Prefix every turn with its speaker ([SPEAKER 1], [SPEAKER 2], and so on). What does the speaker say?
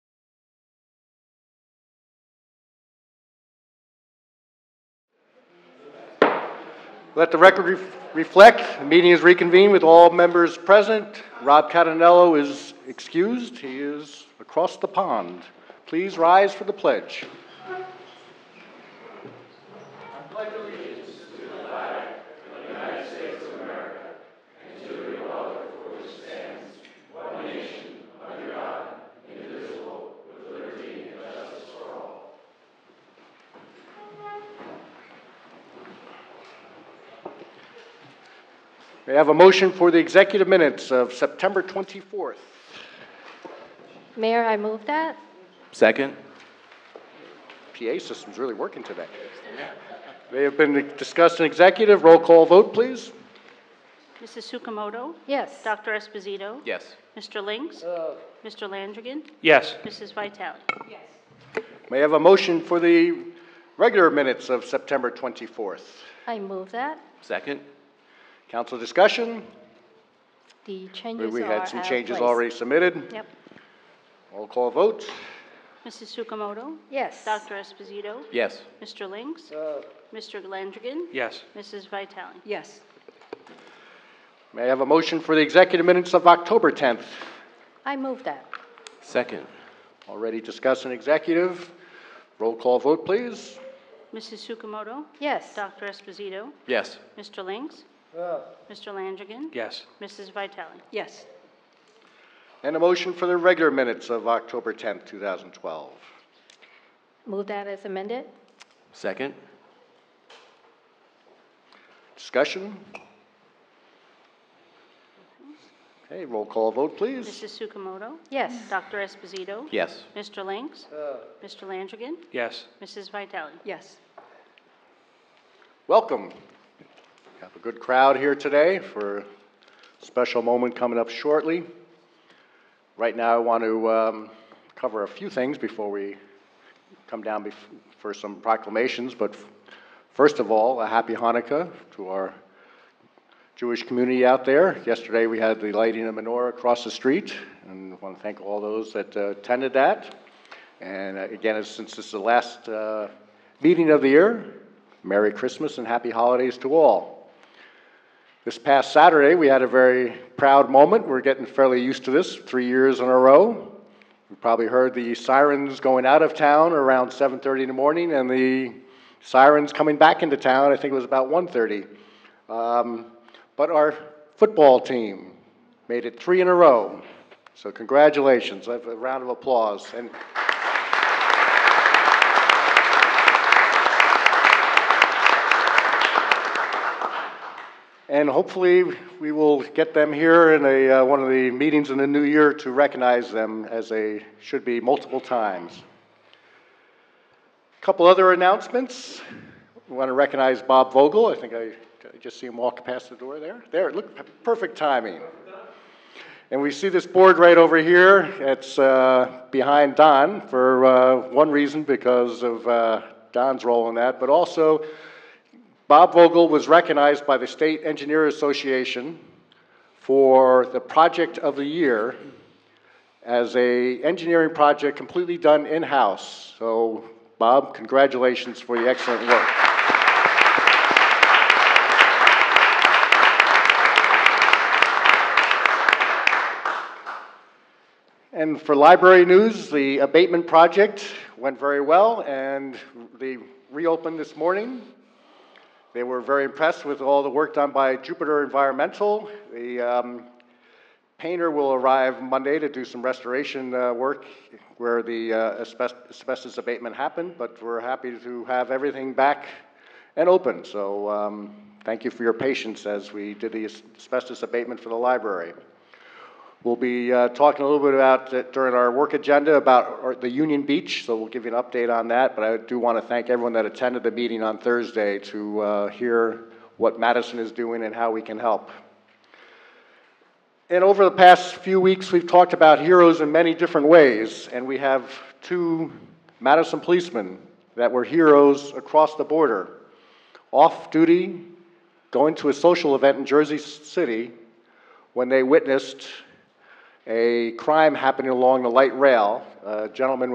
[SPEAKER 1] Let the record ref- reflect, the meeting is reconvened with all members present. Rob Catanello is excused, he is across the pond. Please rise for the pledge. We have a motion for the executive minutes of September 24th.
[SPEAKER 2] Mayor, I move that.
[SPEAKER 3] Second?
[SPEAKER 1] PA system's really working today. They have been discussed in executive, roll call vote, please.
[SPEAKER 4] Mrs. Sukamoto?
[SPEAKER 2] Yes.
[SPEAKER 4] Dr. Esposito?
[SPEAKER 3] Yes.
[SPEAKER 4] Mr. Lynx? Mr. Landrigan?
[SPEAKER 5] Yes.
[SPEAKER 4] Mrs. Vitale?
[SPEAKER 1] May I have a motion for the regular minutes of September 24th?
[SPEAKER 2] I move that.
[SPEAKER 3] Second?
[SPEAKER 1] Council discussion?
[SPEAKER 2] The
[SPEAKER 1] We-
[SPEAKER 2] changes
[SPEAKER 1] We
[SPEAKER 2] are
[SPEAKER 1] had some
[SPEAKER 2] out of
[SPEAKER 1] changes
[SPEAKER 2] place.
[SPEAKER 1] already submitted.
[SPEAKER 4] Yep.
[SPEAKER 1] Roll call vote.
[SPEAKER 4] Mrs. Sukamoto?
[SPEAKER 2] Yes.
[SPEAKER 4] Dr. Esposito?
[SPEAKER 3] Yes.
[SPEAKER 4] Mr. Lynx? Mr. Landrigan?
[SPEAKER 5] Yes.
[SPEAKER 4] Mrs. Vitale?
[SPEAKER 6] Yes.
[SPEAKER 1] May I have a motion for the executive minutes of October 10th?
[SPEAKER 2] I move that.
[SPEAKER 3] Second?
[SPEAKER 1] Already discussed in executive. Roll call vote, please.
[SPEAKER 4] Mrs. Sukamoto?
[SPEAKER 2] Yes.
[SPEAKER 4] Dr. Esposito?
[SPEAKER 3] Yes.
[SPEAKER 4] Mr. Lynx? Mr. Landrigan?
[SPEAKER 5] Yes.
[SPEAKER 4] Mrs. Vitale?
[SPEAKER 6] Yes.
[SPEAKER 1] And a motion for the regular minutes of October 10th, 2012.
[SPEAKER 2] Move that as amended.
[SPEAKER 3] Second?
[SPEAKER 1] Discussion? Okay, roll call vote, please.
[SPEAKER 4] Mrs. Sukamoto?
[SPEAKER 2] Yes.
[SPEAKER 4] Dr. Esposito?
[SPEAKER 3] Yes.
[SPEAKER 4] Mr. Lynx? Mr. Landrigan?
[SPEAKER 5] Yes.
[SPEAKER 4] Mrs. Vitale?
[SPEAKER 6] Yes.
[SPEAKER 1] Welcome. We Have a good crowd here today for a special moment coming up shortly. Right now, I want to um, cover a few things before we come down bef- for some proclamations, but f- first of all, a happy Hanukkah to our Jewish community out there. Yesterday, we had the lighting of menorah across the street, and I want to thank all those that uh, attended that. And uh, again, as- since this is the last uh, meeting of the year, Merry Christmas and Happy Holidays to all. This past Saturday, we had a very proud moment. We're getting fairly used to this, three years in a row. You probably heard the sirens going out of town around 7:30 in the morning, and the sirens coming back into town. I think it was about 1:30. Um, but our football team made it three in a row. So congratulations! I have a round of applause. And And hopefully, we will get them here in a, uh, one of the meetings in the new year to recognize them as they should be multiple times. Couple other announcements. We want to recognize Bob Vogel. I think I, I just see him walk past the door there. There, look, p- perfect timing. And we see this board right over here. It's uh, behind Don for uh, one reason because of uh, Don's role in that, but also Bob Vogel was recognized by the State Engineer Association for the project of the year as a engineering project completely done in-house. So Bob, congratulations for the excellent work. And for library news, the abatement project went very well and they reopened this morning. They were very impressed with all the work done by Jupiter Environmental. The um, painter will arrive Monday to do some restoration uh, work where the uh, asbest- asbestos abatement happened, but we're happy to have everything back and open. So um, thank you for your patience as we did the as- asbestos abatement for the library. We'll be uh, talking a little bit about, it during our work agenda, about our- the Union Beach, so we'll give you an update on that. But I do want to thank everyone that attended the meeting on Thursday to uh, hear what Madison is doing and how we can help. And over the past few weeks, we've talked about heroes in many different ways, and we have two Madison policemen that were heroes across the border, off duty, going to a social event in Jersey City when they witnessed a crime happening along the light rail. A gentleman